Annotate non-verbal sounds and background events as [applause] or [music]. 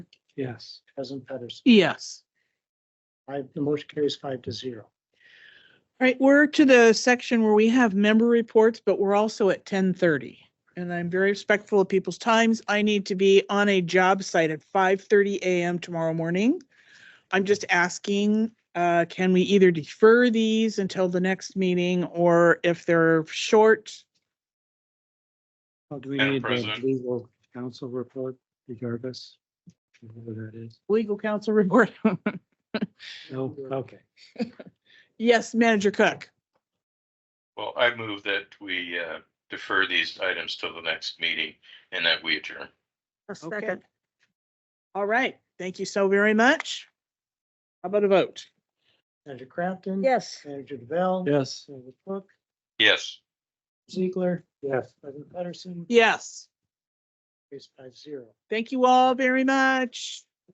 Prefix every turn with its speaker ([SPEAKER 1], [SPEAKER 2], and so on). [SPEAKER 1] Yes. President Pedersen.
[SPEAKER 2] Yes.
[SPEAKER 1] Five, the motion carries five to zero.
[SPEAKER 2] All right, we're to the section where we have member reports, but we're also at ten thirty. And I'm very respectful of people's times. I need to be on a job site at five thirty AM tomorrow morning. I'm just asking, uh, can we either defer these until the next meeting or if they're short?
[SPEAKER 1] Well, Oh, do we
[SPEAKER 3] Madam
[SPEAKER 1] need the
[SPEAKER 3] President.
[SPEAKER 1] legal counsel report regardless? Whatever that is.
[SPEAKER 2] Legal counsel [laughs] report.
[SPEAKER 1] No, okay.
[SPEAKER 2] Yes, Manager Cook.
[SPEAKER 3] Well, I move that we uh, defer these items till the next meeting and that we adjourn.
[SPEAKER 4] A
[SPEAKER 2] Okay.
[SPEAKER 4] second.
[SPEAKER 2] All right, thank you so very much. How about a vote?
[SPEAKER 1] Manager Crafton.
[SPEAKER 4] Yes.
[SPEAKER 1] Manager DeBelle.
[SPEAKER 5] Yes.
[SPEAKER 1] Manager Cook.
[SPEAKER 3] Yes.
[SPEAKER 1] Ziegler.
[SPEAKER 5] Yes.
[SPEAKER 1] President Pedersen.
[SPEAKER 2] Yes,
[SPEAKER 1] Carries five zero.
[SPEAKER 2] thank you all very much.